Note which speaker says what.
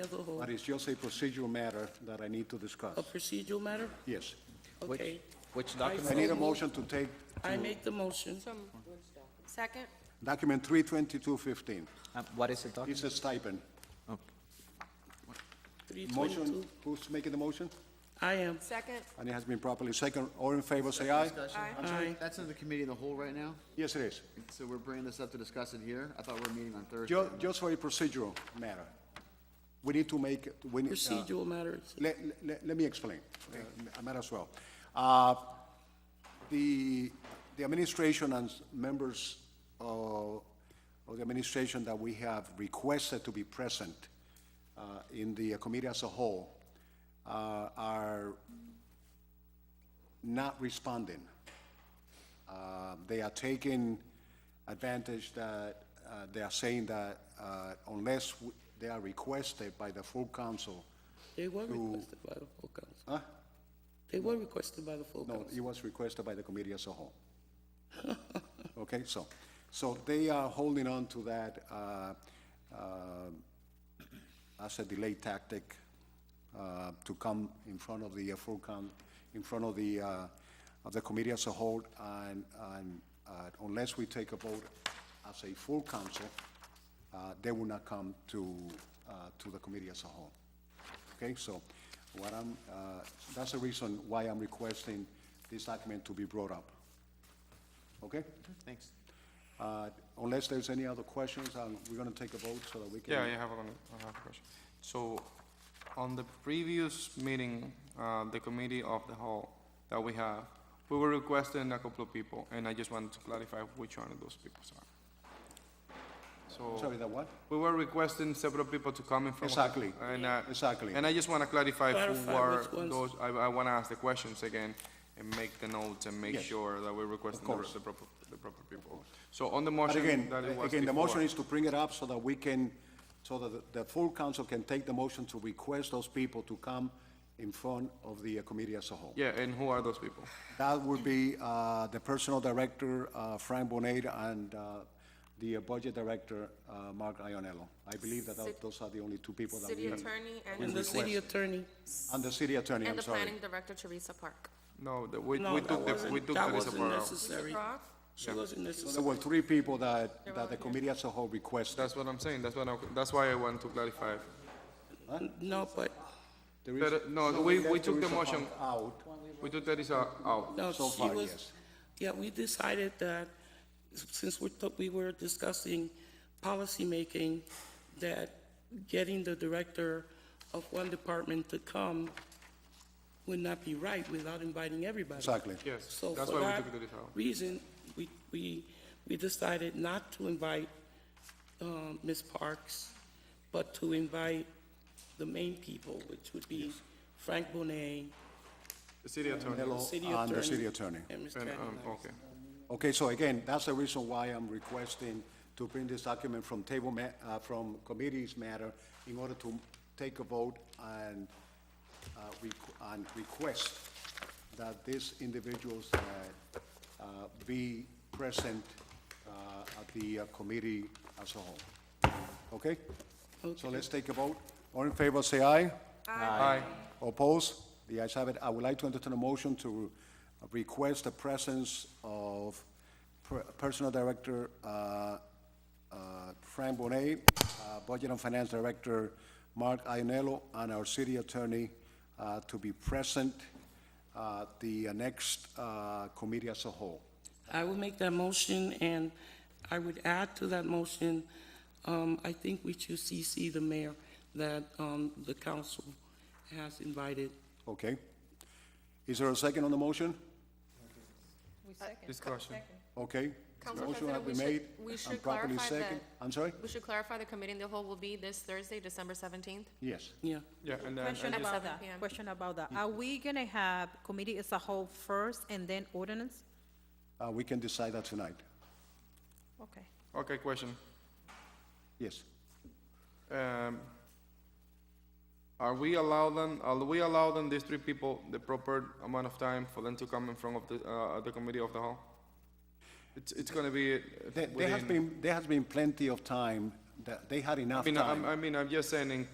Speaker 1: as a whole,
Speaker 2: But it's just a procedural matter that I need to discuss.
Speaker 1: a procedural matter?
Speaker 2: Yes.
Speaker 3: Which-
Speaker 1: Okay,
Speaker 3: Which
Speaker 2: I need
Speaker 3: document?
Speaker 2: a motion to take
Speaker 1: I make the motion.
Speaker 4: Second?
Speaker 2: document 32215.
Speaker 3: Um, What is the document?
Speaker 2: It's a stipend.
Speaker 1: Three
Speaker 2: Motion,
Speaker 1: twenty-two.
Speaker 2: who's making the motion?
Speaker 1: I am.
Speaker 4: Second?
Speaker 2: And it has been properly second. All in favor, say aye.
Speaker 5: Discussion.
Speaker 4: Aye.
Speaker 5: I'm sorry,
Speaker 1: Aye.
Speaker 5: That's in the committee in the whole right now,
Speaker 2: Yes, it is.
Speaker 5: so we're bringing this up to discuss it here. I thought we were meeting on Thursday.
Speaker 2: Ju- Just for a procedural matter. We need to make, we need... uh,
Speaker 1: Procedural matter.
Speaker 2: Let, let, let me explain. Okay, I might as well. Uh, The, the administration and s- members of, of the administration that we have requested to be present uh, in the committee as a whole uh, are not responding. Uh, They are taking advantage that, uh, they are saying that uh, unless w- they are requested by the full council,
Speaker 1: They were requested by the full council.
Speaker 2: Huh?
Speaker 1: They were requested by the full
Speaker 2: No,
Speaker 1: council.
Speaker 2: it was requested by the committee as a whole. Okay, so, so they are holding on to that uh, um, as a delay tactic uh, to come in front of the uh, full coun, in front of the, uh, of the committee as a whole, and, and uh, unless we take a vote as a full council, uh, they will not come to, uh, to the committee as a whole. Okay, so what I'm, uh, that's the reason why I'm requesting this document to be brought up. Okay?
Speaker 3: Thanks.
Speaker 2: Uh, Unless there's any other questions, um, we're going to take a vote so that we can.
Speaker 6: Yeah, I have a, con- I have a question. So, on the previous meeting, uh, the committee of the whole that we have, we were requesting a couple of people, and I just wanted to clarify which one of those people are.
Speaker 2: Sorry,
Speaker 6: So,
Speaker 2: that what?
Speaker 6: we were requesting several people to come in from.
Speaker 2: Exactly.
Speaker 6: And, uh,
Speaker 2: Exactly.
Speaker 6: And I just wanna clarify who
Speaker 1: Clarify
Speaker 6: are
Speaker 1: which ones.
Speaker 6: those, I, I wanna ask the questions again and make the notes and make
Speaker 2: Yes.
Speaker 6: sure that we're requesting the,
Speaker 2: course.
Speaker 6: the proper, the proper people. So on the
Speaker 2: But
Speaker 6: motion
Speaker 2: again, uh,
Speaker 6: that it was
Speaker 2: again, the motion
Speaker 6: before-
Speaker 2: is to bring it up so that we can, so that the- the full council can take the motion to request those people to come in front of the uh, committee as a whole.
Speaker 6: Yeah, and who are those people?
Speaker 2: That would be uh, the personal director, uh, Frank Bonet, and uh, the budget director, uh, Mark Ionello. I believe that tho- those are the only two people that
Speaker 4: City
Speaker 2: we,
Speaker 4: Attorney
Speaker 1: And
Speaker 4: and,
Speaker 1: the city attorney,
Speaker 2: and the city attorney,
Speaker 4: and
Speaker 2: I'm
Speaker 4: the
Speaker 2: sorry.
Speaker 4: Planning Director Teresa Park.
Speaker 6: No, the, we,
Speaker 1: no,
Speaker 6: we
Speaker 1: that
Speaker 6: took the, we
Speaker 1: wasn't,
Speaker 6: took
Speaker 1: that
Speaker 6: Teresa
Speaker 1: wasn't
Speaker 6: Parra. out.
Speaker 1: necessary.
Speaker 4: Roth?
Speaker 1: She wasn't
Speaker 2: There
Speaker 1: necessary.
Speaker 2: were three people that, that the committee as a whole requested.
Speaker 6: That's what I'm saying, that's what I, that's why I want to clarify.
Speaker 1: No, but,
Speaker 2: There is-
Speaker 6: But, uh, no,
Speaker 2: so
Speaker 6: we-
Speaker 2: left
Speaker 6: we took the
Speaker 2: Teresa
Speaker 6: motion-
Speaker 2: Park Out.
Speaker 6: We took Teresa out.
Speaker 1: no,
Speaker 2: So
Speaker 1: she
Speaker 2: far,
Speaker 1: was,
Speaker 2: yes.
Speaker 1: yeah, we decided that, since we thought we were discussing policymaking, that getting the director of one department to come would not be right without inviting everybody.
Speaker 2: Exactly.
Speaker 6: Yes,
Speaker 1: So
Speaker 6: that's
Speaker 1: for
Speaker 6: why we
Speaker 1: that
Speaker 6: took Teresa out.
Speaker 1: reason, we, we, we decided not to invite, um, Ms. Parks, but to invite the main people, which would be Frank Bonet,
Speaker 6: The city attorney.
Speaker 2: Hello,
Speaker 1: city
Speaker 2: and
Speaker 1: attorney.
Speaker 2: the city attorney.
Speaker 1: and Mr.
Speaker 6: And, um,
Speaker 1: Aguilar.
Speaker 6: okay.
Speaker 2: Okay, so again, that's the reason why I'm requesting to bring this document from table ma, uh, from committees matter in order to take a vote and, uh, requ- and request that these individuals, uh, uh, be present, uh, at the uh, committee as a whole. Okay? So let's take a vote. All in favor, say aye.
Speaker 6: Aye.
Speaker 2: Opposed? The ayes have it. I would like to entertain a motion to request the presence of Per- Personal Director uh, uh, Frank Bonet, uh, Budget and Finance Director Mark Ionello, and our City Attorney uh, to be present at the next uh, committee as a whole.
Speaker 1: I will make that motion, and I would add to that motion, um, I think we should CC the mayor that, um, the council has invited.
Speaker 2: Okay? Is there a second on the motion?
Speaker 6: Discussion.
Speaker 2: Okay?
Speaker 4: Council
Speaker 2: Motion
Speaker 4: President,
Speaker 2: has been
Speaker 4: we
Speaker 2: made
Speaker 4: should- we
Speaker 2: and
Speaker 4: should
Speaker 2: properly
Speaker 4: clarify that-
Speaker 2: second- I'm sorry?
Speaker 4: We should clarify the committee in the whole will be this Thursday, December 17th.
Speaker 2: Yes.
Speaker 1: Yeah,
Speaker 6: Yeah, and then,
Speaker 7: Question
Speaker 6: and just-
Speaker 7: about
Speaker 4: 7
Speaker 7: that,
Speaker 4: p.m.
Speaker 7: question about that. Are we gonna have committee as a whole first and then ordinance?
Speaker 2: Uh, We can decide that tonight.
Speaker 7: Okay.
Speaker 6: okay, question.
Speaker 2: Yes.
Speaker 6: Um, are we allowing, are we allowing these three people the proper amount of time for them to come in front of the, uh, the committee of the whole? It's, it's gonna be uh,
Speaker 2: There there has
Speaker 6: within,
Speaker 2: been, there has been plenty of time, that they had
Speaker 6: I
Speaker 2: enough
Speaker 6: mean, I'm,
Speaker 2: time.
Speaker 6: I mean, I'm just saying in,